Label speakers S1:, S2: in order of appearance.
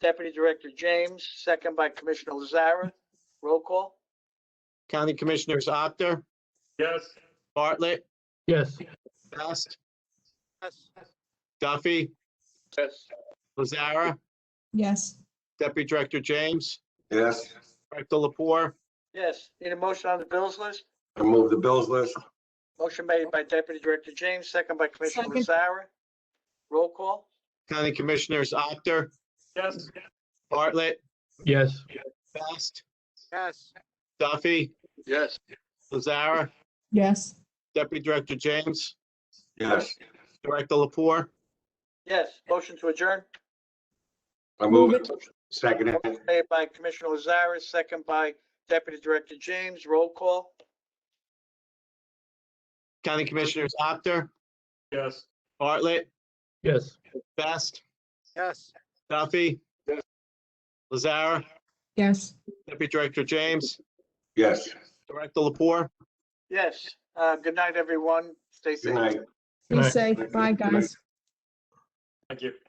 S1: Deputy Director James, second by Commissioner Lazara. Roll call?
S2: County Commissioners Actor,
S3: Yes.
S2: Bartlett,
S4: yes,
S2: Best, Duffy,
S3: Yes.
S2: Lazara,
S5: yes,
S2: Deputy Director James,
S6: Yes,
S2: Director Lapore,
S1: Yes. Need a motion on the bills list?
S6: I move the bills list.
S1: Motion made by Deputy Director James, second by Commissioner
S5: Second.
S1: Lazara. Roll call?
S2: County Commissioners Actor,
S3: Yes.
S2: Bartlett,
S4: yes,
S2: Best,
S1: Yes.
S2: Duffy,
S3: Yes.
S2: Lazara,
S5: yes,
S2: Deputy Director James,
S6: Yes,
S2: Director Lapore.
S1: Yes. Motion to adjourn?
S6: I move it. Second it.
S1: Made by Commissioner Lazara, second by Deputy Director James. Roll call?
S2: County Commissioners Actor,
S3: Yes.
S2: Bartlett,
S4: yes.
S2: Best,
S1: Yes.
S2: Duffy, Lazara,
S5: yes.
S2: Deputy Director James,
S6: Yes,
S2: Director Lapore.
S1: Yes. Uh, good night, everyone. Stay safe.
S6: good night.
S5: Be
S4: Right.
S5: safe. Bye, guys.
S3: Thank you.